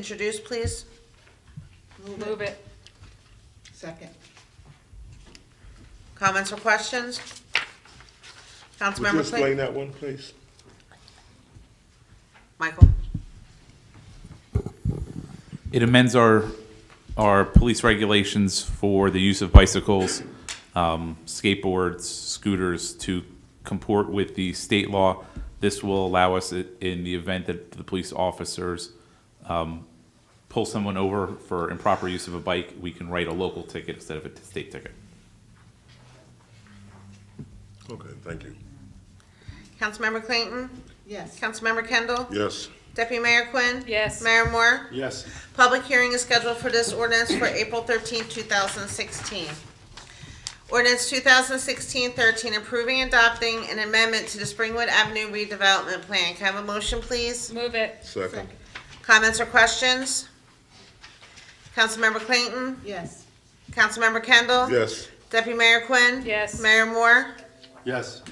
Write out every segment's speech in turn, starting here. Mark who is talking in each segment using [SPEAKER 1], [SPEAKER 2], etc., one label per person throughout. [SPEAKER 1] introduced, please?
[SPEAKER 2] Move it.
[SPEAKER 3] Second.
[SPEAKER 1] Comments or questions?
[SPEAKER 4] Would you
[SPEAKER 1] Councilmember
[SPEAKER 4] explain
[SPEAKER 1] Clayton?
[SPEAKER 4] that one, please?
[SPEAKER 1] Michael?
[SPEAKER 5] It amends our, our police regulations for the use of bicycles, um, skateboards, scooters to comport with the state law. This will allow us, i- in the event that the police officers um, pull someone over for improper use of a bike, we can write a local ticket instead of a state ticket.
[SPEAKER 4] Okay, thank you.
[SPEAKER 1] Councilmember Clayton?
[SPEAKER 3] Yes.
[SPEAKER 1] Councilmember Kendall?
[SPEAKER 4] Yes.
[SPEAKER 1] Deputy Mayor Quinn?
[SPEAKER 2] Yes.
[SPEAKER 1] Mayor Moore?
[SPEAKER 4] Yes.
[SPEAKER 1] Public hearing is scheduled for this ordinance for April 13, 2016. Ordinance 2016-13, approving and adopting an amendment to the Springwood Avenue redevelopment plan. Can I have a motion, please?
[SPEAKER 2] Move it.
[SPEAKER 4] Second.
[SPEAKER 1] Comments or questions? Councilmember Clayton?
[SPEAKER 3] Yes.
[SPEAKER 1] Councilmember Kendall?
[SPEAKER 4] Yes.
[SPEAKER 1] Deputy Mayor Quinn?
[SPEAKER 2] Yes.
[SPEAKER 1] Mayor Moore?
[SPEAKER 4] Yes.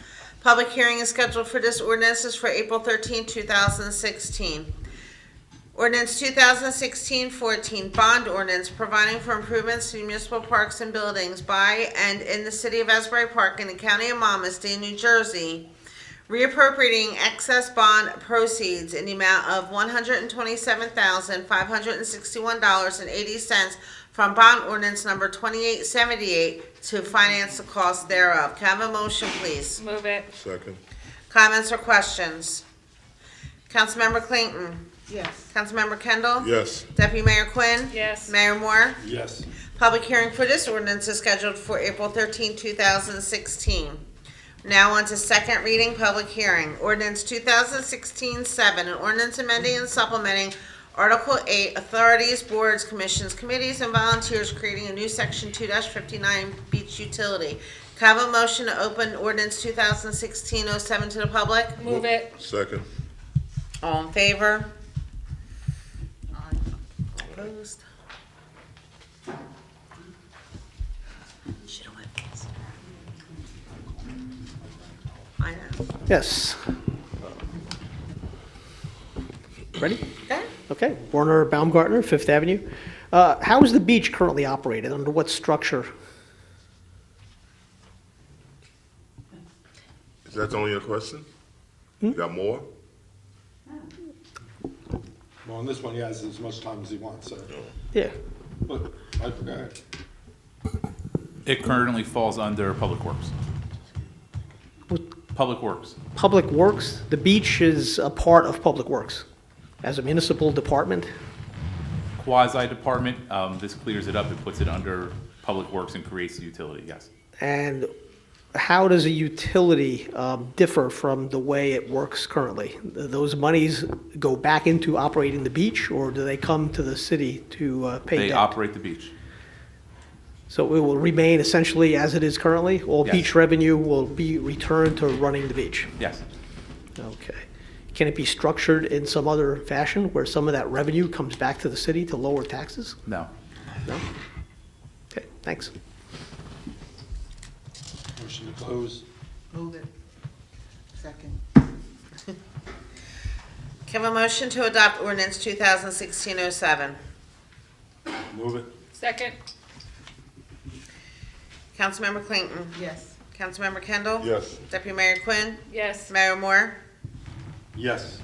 [SPEAKER 1] Public hearing is scheduled for this ordinance is for April 13, 2016. Ordinance 2016-14, bond ordinance providing for improvements to municipal parks and buildings by and in the city of Asbury Park in the county of Monmouth, state of New Jersey, reappropriating excess bond proceeds in the amount of $127,561.80 from bond ordinance number 2878 to finance the cost thereof. Can I have a motion, please?
[SPEAKER 2] Move it.
[SPEAKER 4] Second.
[SPEAKER 1] Comments or questions? Councilmember Clayton?
[SPEAKER 3] Yes.
[SPEAKER 1] Councilmember Kendall?
[SPEAKER 4] Yes.
[SPEAKER 1] Deputy Mayor Quinn?
[SPEAKER 2] Yes.
[SPEAKER 1] Mayor Moore?
[SPEAKER 4] Yes.
[SPEAKER 1] Public hearing for this ordinance is scheduled for April 13, 2016. Now on to second reading, public hearing. Ordinance 2016-7, an ordinance amending and supplementing Article 8, Authorities, Boards, Commissions, Committees, and Volunteers, creating a new Section 2-59 Beach Utility. Can I have a motion to open ordinance 2016-07 to the public?
[SPEAKER 2] Move it.
[SPEAKER 4] Second.
[SPEAKER 1] All in favor? Opposed? Should've went first. I know.
[SPEAKER 6] Yes. Ready?
[SPEAKER 1] Okay.
[SPEAKER 6] Okay. Werner Baumgartner, Fifth Avenue. Uh, How is the beach currently operated? Under what structure?
[SPEAKER 4] Is that only a question?
[SPEAKER 2] Hmm?
[SPEAKER 4] You got more?
[SPEAKER 7] Well, on this one, he has as much time as he wants, so,
[SPEAKER 6] Yeah.
[SPEAKER 7] but, I forgot.
[SPEAKER 5] It currently falls under Public Works.
[SPEAKER 6] What?
[SPEAKER 5] Public Works.
[SPEAKER 6] Public Works, the beach is a part of Public Works as a municipal department.
[SPEAKER 5] Quasi-department, um, this clears it up, it puts it under Public Works and creates the utility, yes.
[SPEAKER 6] And how does a utility um, differ from the way it works currently? Th- Those monies go back into operating the beach, or do they come to the city to uh, pay
[SPEAKER 5] They
[SPEAKER 6] debt?
[SPEAKER 5] operate the beach.
[SPEAKER 6] So it will remain essentially as it is currently? All
[SPEAKER 5] Yes.
[SPEAKER 6] beach revenue will be returned to running the beach?
[SPEAKER 5] Yes.
[SPEAKER 6] Okay. Can it be structured in some other fashion where some of that revenue comes back to the city to lower taxes?
[SPEAKER 5] No.
[SPEAKER 6] No? Okay, thanks.
[SPEAKER 7] Motion to close.
[SPEAKER 3] Move it. Second.
[SPEAKER 1] Can I have a motion to adopt ordinance 2016-07?
[SPEAKER 7] Move it.
[SPEAKER 2] Second.
[SPEAKER 1] Councilmember Clayton?
[SPEAKER 3] Yes.
[SPEAKER 1] Councilmember Kendall?
[SPEAKER 4] Yes.
[SPEAKER 1] Deputy Mayor Quinn?
[SPEAKER 2] Yes.
[SPEAKER 1] Mayor Moore?
[SPEAKER 7] Yes.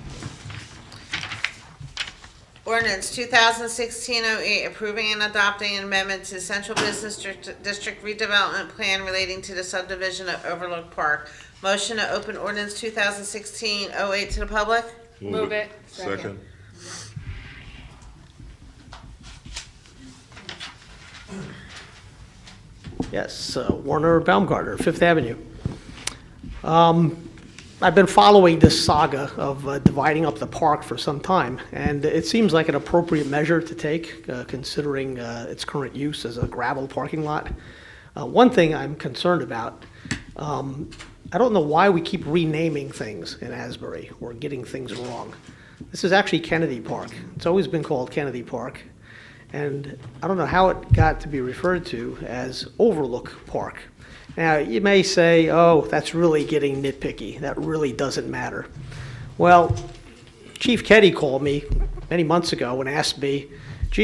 [SPEAKER 1] Ordinance 2016-08, approving and adopting an amendment to Central Business District- District redevelopment plan relating to the subdivision of Overlook Park. Motion to open ordinance 2016-08 to the public?
[SPEAKER 2] Move it.
[SPEAKER 4] Second.
[SPEAKER 6] Yes, uh, Warner Baumgartner, Fifth Avenue. Um, I've been following this saga of uh, dividing up the park for some time, and it seems like an appropriate measure to take, uh, considering uh, its current use as a gravel parking lot. Uh, One thing I'm concerned about, um, I don't know why we keep renaming things in Asbury or getting things wrong. This is actually Kennedy Park. It's always been called Kennedy Park. And I don't know how it got to be referred to as Overlook Park. Now, you may say, oh, that's really getting nitpicky. That really doesn't matter. Well, Chief Ketty called me many months ago and asked me